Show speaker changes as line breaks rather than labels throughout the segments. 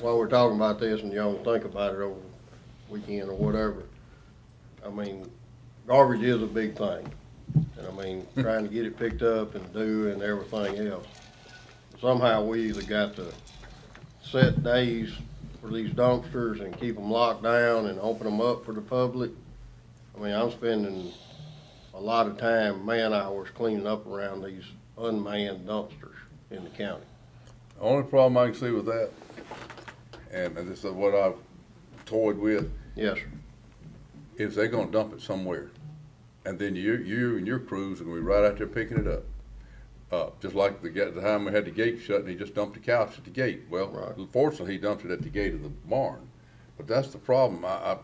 while we're talking about this and y'all think about it over the weekend or whatever, I mean, garbage is a big thing. And I mean, trying to get it picked up and do and everything else. Somehow we either got to set days for these dumpsters and keep them locked down and open them up for the public. I mean, I'm spending a lot of time, man hours cleaning up around these unmanned dumpsters in the county.
Only problem I can see with that, and this is what I've toyed with,
Yes, sir.
is they're gonna dump it somewhere. And then you, you and your crews are gonna be right out there picking it up. Uh, just like the, guy- the time we had the gate shut and he just dumped the couch at the gate. Well,
Right.
fortunately, he dumped it at the gate of the barn. But that's the problem. I, I, I-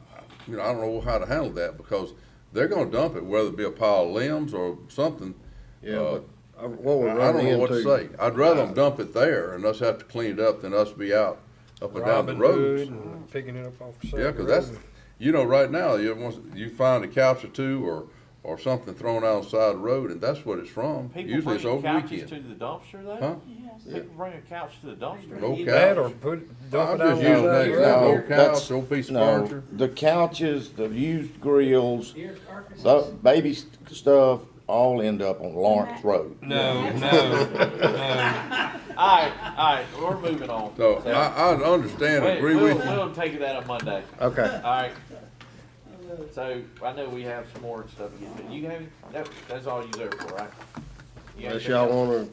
you know, I don't know how to handle that because they're gonna dump it, whether it be a pile of limbs or something.
Yeah,
Uh,
but I- what
I
we're
I don't
running
know what to
into,
say. I'd rather them dump it there and us have to clean it up than us be out up and down the
Robin
roads.
Hood and picking it up off the side.
Yeah,
of the
cause that's,
road.
you know, right now, you, once, you find a couch or two or, or something thrown out on the side of the road and that's what it's from.
People
Usually it's
bringing
over
couches
weekend.
to the dumpster
Huh?
though? People bring a couch to the dumpster?
No couch.
That or put,
I'm
dump it out.
just
on
using
the
that
road.
example, old couch,
That's-
old piece of
No,
furniture.
The couches, the used grills, the baby st- stuff, all end up on Lawrence Road.
No, no, no.
Alright, alright, we're moving on.
So I, I understand,
Wait,
agree
we'll,
with you.
we'll take that on Monday,
okay,
alright? So I know we have some more stuff to get, but you have, that, that's all you there for, right? You have
unless y'all
anything else?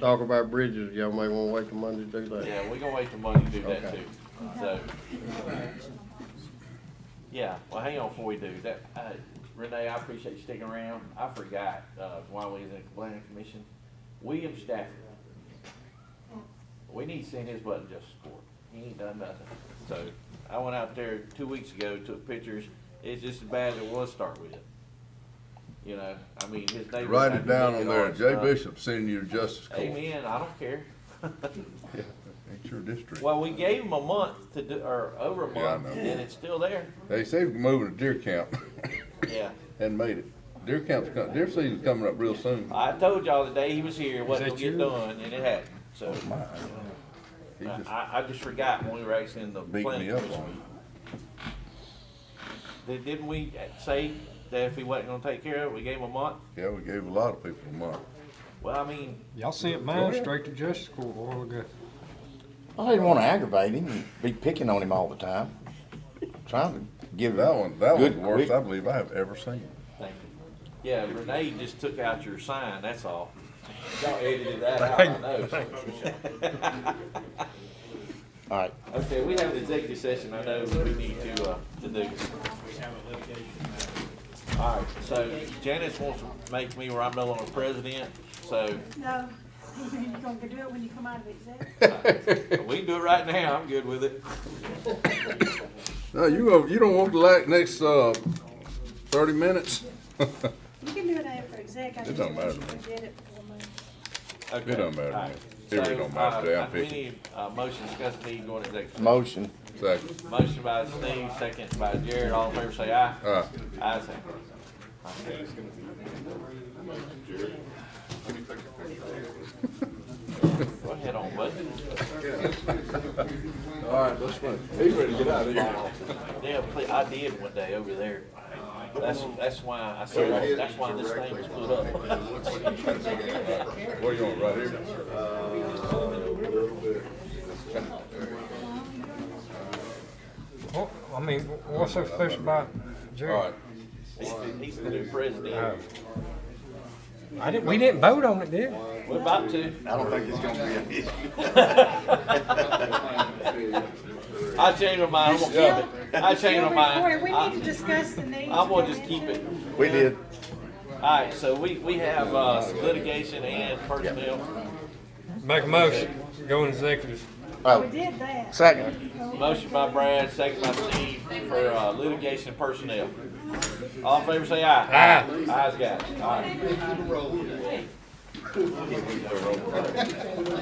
wanna talk about bridges, y'all may wanna wait till Monday to do that.
Yeah, we gonna wait till Monday to do that
Okay.
too, so. Yeah, well, hang on before we do that, uh, Renee, I appreciate you sticking around, I forgot, uh, while we was in the planning commission, William Stafford. We need to send his button just score, he ain't done nothing, so, I went out there two weeks ago, took pictures, it's just as bad as it was to start with. You know, I mean, his neighbors.
Write
had
it
to
down
look
on
at
there,
ours,
Jay
uh,
Bishop sending you to justice court.
Amen, I don't care.
It's your district.
Well, we gave them a month to do, or over a
Yeah, I
month,
know.
and it's still there.
They say we're moving to deer camp
Yeah,
and made it. Deer camp's, co- deer season's coming up real soon.
I told y'all the day he was here, it wasn't
that
gonna get
you?
done, and it happened, so.
Oh, He
I,
just
I- I just forgot when we were actually in the
beat
planning
me up
commission.
on
Did- Didn't we say that if he wasn't gonna take care of it, we gave him a month?
it. Yeah, we gave a lot of people a month.
Well, I mean,
Y'all sent mine straight to justice court a while ago.
I didn't wanna aggravate him, and be picking on him all the time, trying to give
That
him
one, that was
Good,
the worst
quick.
I believe I have ever seen.
thank you. Yeah, Renee just took out your sign, that's all. Y'all edited that out, I know.
all right,
Okay, we have an executive session, I know we need to, uh, to do. Alright, so Janice wants to make me where I'm no longer president, so
No, you're gonna do it when you come out of exec.
we can do it right now, I'm good with it.
No, you go- you don't want the la- next uh, thirty minutes.
You can do it after exec. I
It
just
don't matter
wish
to me.
you could get it before Monday.
Okay,
It don't matter to me.
alright.
It really don't matter
So,
today, I'm
uh, We
picking.
need a motion discussing need going to executive.
motion.
Exactly.
Motion by Steve, second by Jared, all in favor say aye.
Aye.
Ayes have it. Go ahead on, bud.
All right, let's go. He's ready to get out of here.
Yeah, ple- I did one day over there. That's, that's why I said, that's why this thing was put up.
What do you want, right here?
What, I mean, what's so special about
All
Jerry?
right.
He's the- He's the new president.
I didn't, we didn't vote on it, did we?
We're about to.
I don't think it's gonna be an issue.
I changed my mind. I'm gonna keep it. I changed my
Corey, we need to
mind.
discuss the need.
I- I'm
to
gonna
go
just keep
into-
it.
We did,
Alright, so we, we have, uh, litigation and personnel.
Make a motion, go in executive.
We
oh,
did that.
second,
Motion by Brad, second by Steve for, uh, litigation personnel. All in favor say aye. Aye. Ayes, guys. Alright.